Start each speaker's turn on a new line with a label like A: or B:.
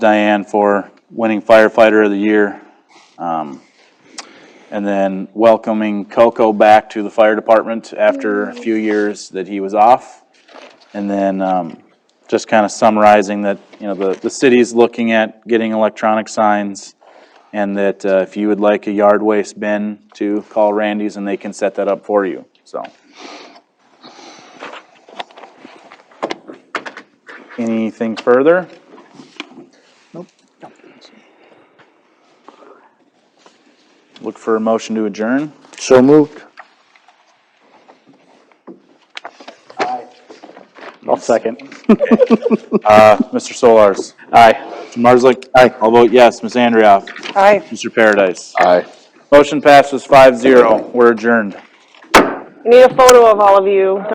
A: Diane for winning firefighter of the year. Um, And then welcoming Coco back to the fire department after a few years that he was off. And then um, just kind of summarizing that, you know, the, the city's looking at getting electronic signs. And that uh, if you would like a yard waste bin to call Randy's and they can set that up for you, so. Anything further? Look for a motion to adjourn.
B: So moved. I'll second.
A: Uh, Mr. Solars.
B: Aye.
A: Mr. Marslick. Aye. I'll vote yes. Ms. Andrioff.
C: Aye.
A: Mr. Paradise.
B: Aye.
A: Motion passes five zero. We're adjourned.
C: Need a photo of all of you.